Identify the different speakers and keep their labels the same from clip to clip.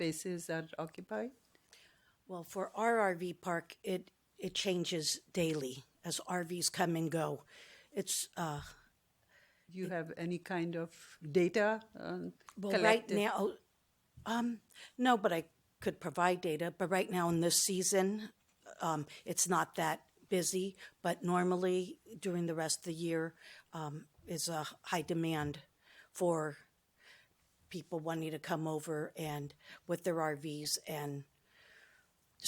Speaker 1: spaces are occupied?
Speaker 2: Well, for our RV park, it it changes daily as RVs come and go. It's uh,
Speaker 1: Do you have any kind of data um,
Speaker 2: well, right
Speaker 1: collected?
Speaker 2: now. Um, no, but I could provide data. But right now in this season, um, it's not that busy. But normally during the rest of the year um, is a high demand for people wanting to come over and with their RVs and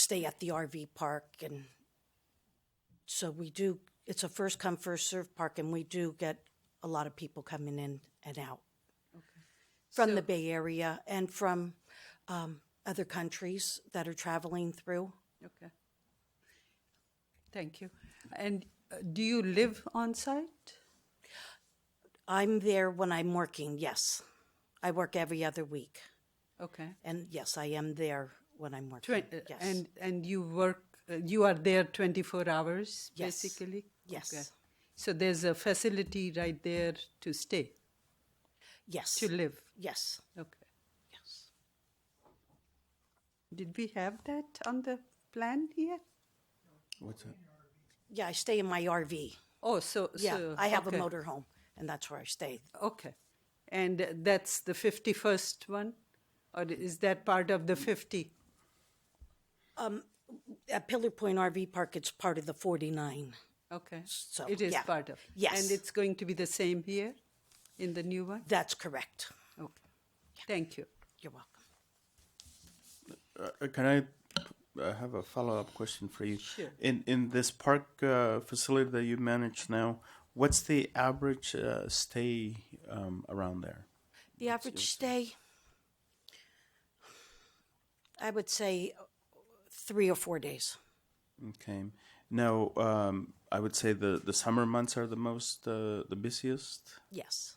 Speaker 2: stay at the RV park and so we do it's a first come first served park and we do get a lot of people coming in and out from the Bay Area and from um, other countries that are traveling through.
Speaker 1: Okay. Thank you. And uh, do you live on site?
Speaker 2: I'm there when I'm working, yes. I work every other week.
Speaker 1: Okay.
Speaker 2: And yes, I am there when I'm working.
Speaker 1: Twen- uh,
Speaker 2: yes.
Speaker 1: And and you work. Uh, you are there twenty four hours
Speaker 2: Yes.
Speaker 1: basically.
Speaker 2: Yes.
Speaker 1: So there's a facility right there to stay
Speaker 2: yes.
Speaker 1: to live.
Speaker 2: yes.
Speaker 1: Okay.
Speaker 2: Yes.
Speaker 1: Did we have that on the plan here?
Speaker 3: What's that?
Speaker 2: Yeah, I stay in my RV.
Speaker 1: Oh, so
Speaker 2: Yeah,
Speaker 1: so,
Speaker 2: I have
Speaker 1: okay.
Speaker 2: a motorhome and that's where I stay.
Speaker 1: Okay. And uh, that's the 51st one? Or is that part of the 50?
Speaker 2: At Pillar Point RV Park, it's part of the 49.
Speaker 1: Okay.
Speaker 2: So,
Speaker 1: it is
Speaker 2: yeah.
Speaker 1: part of.
Speaker 2: Yes.
Speaker 1: And it's going to be the same here in the new one?
Speaker 2: That's correct.
Speaker 1: Okay. Thank you.
Speaker 2: You're welcome.
Speaker 3: Uh, can I uh, have a follow up question for you?
Speaker 1: Sure.
Speaker 3: In in this park uh, facility that you manage now, what's the average uh, stay um, around there?
Speaker 2: The average stay, I would say uh, three or four days.
Speaker 3: Okay. Now, um, I would say the, the summer months are the most uh, the busiest,
Speaker 2: Yes.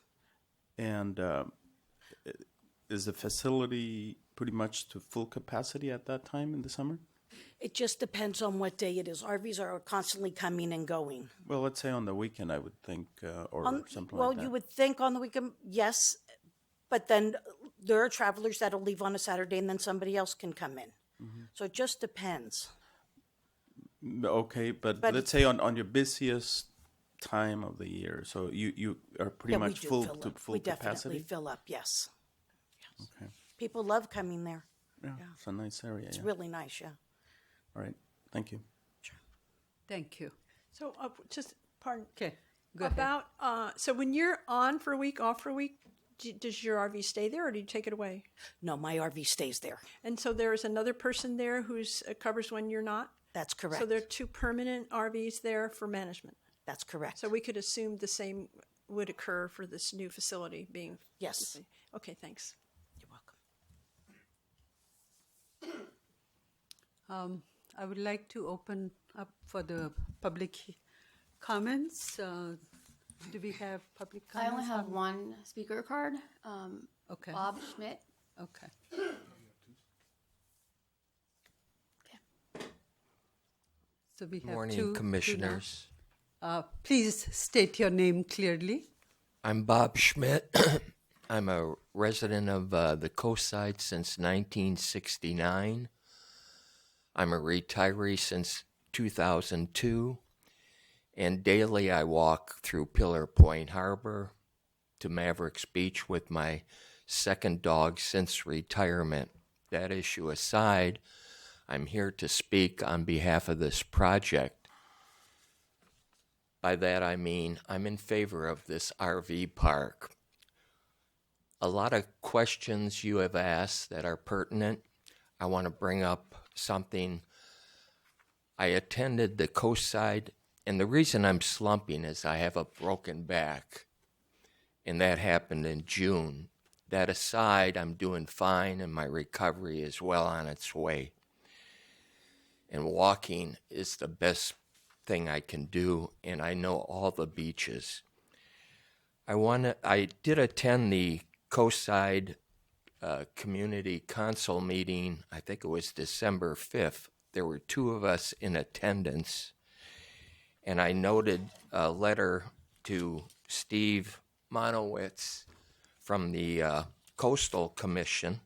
Speaker 3: and uh, is the facility pretty much to full capacity at that time in the summer?
Speaker 2: It just depends on what day it is. RVs are constantly coming and going.
Speaker 3: Well, let's say on the weekend, I would think, uh, or something
Speaker 2: well,
Speaker 3: like that.
Speaker 2: you would think on the weekend, yes, but then there are travelers that'll leave on a Saturday and then somebody else can come in.
Speaker 3: Mm-hmm.
Speaker 2: So it just depends.
Speaker 3: Okay, but,
Speaker 2: But-
Speaker 3: let's say on, on your busiest time of the year, so you, you are pretty
Speaker 2: Yeah, we
Speaker 3: much
Speaker 2: do
Speaker 3: full
Speaker 2: fill
Speaker 3: to
Speaker 2: up.
Speaker 3: full
Speaker 2: we
Speaker 3: capacity.
Speaker 2: definitely fill up, yes.
Speaker 3: okay,
Speaker 2: People love coming there.
Speaker 3: yeah, it's a nice area.
Speaker 2: It's
Speaker 3: Yeah.
Speaker 2: really nice, yeah.
Speaker 3: All right, thank you.
Speaker 1: Thank you.
Speaker 4: So uh, just pardon.
Speaker 1: Okay. Go ahead.
Speaker 4: About uh, so when you're on for a week, off for a week, d- does your RV stay there or do you take it away?
Speaker 2: No, my RV stays there.
Speaker 4: And so there is another person there who's uh, covers when you're not.
Speaker 2: That's correct.
Speaker 4: So there are two permanent RVs there for management.
Speaker 2: That's correct.
Speaker 4: So we could assume the same would occur for this new facility being.
Speaker 2: Yes.
Speaker 4: Okay. Thanks.
Speaker 2: You're welcome.
Speaker 1: Um, I would like to open up for the public he- comments. Uh, do we have public
Speaker 5: I
Speaker 1: comments?
Speaker 5: only have one speaker card. Um,
Speaker 1: Okay.
Speaker 5: Bob Schmidt.
Speaker 1: Okay. So we have two- two
Speaker 6: Morning,
Speaker 1: now.
Speaker 6: Commissioners.
Speaker 1: Uh, Please state your name clearly.
Speaker 6: I'm Bob Schmidt. I'm a resident of uh, the coast side since 1969. I'm a retiree since 2002. And daily I walk through Pillar Point Harbor to Mavericks Beach with my second dog since retirement. That issue aside, I'm here to speak on behalf of this project. By that I mean I'm in favor of this RV park. A lot of questions you have asked that are pertinent. I want to bring up something. I attended the coastside, and the reason I'm slumping is I have a broken back, and that happened in June. That aside, I'm doing fine, and my recovery is well on its way and walking is the best thing I can do, and I know all the beaches. I want to. I did attend the Coastside uh, Community Council meeting. I think it was December fifth. There were two of us in attendance, and I noted a letter to Steve Monowitz from the uh, Coastal Commission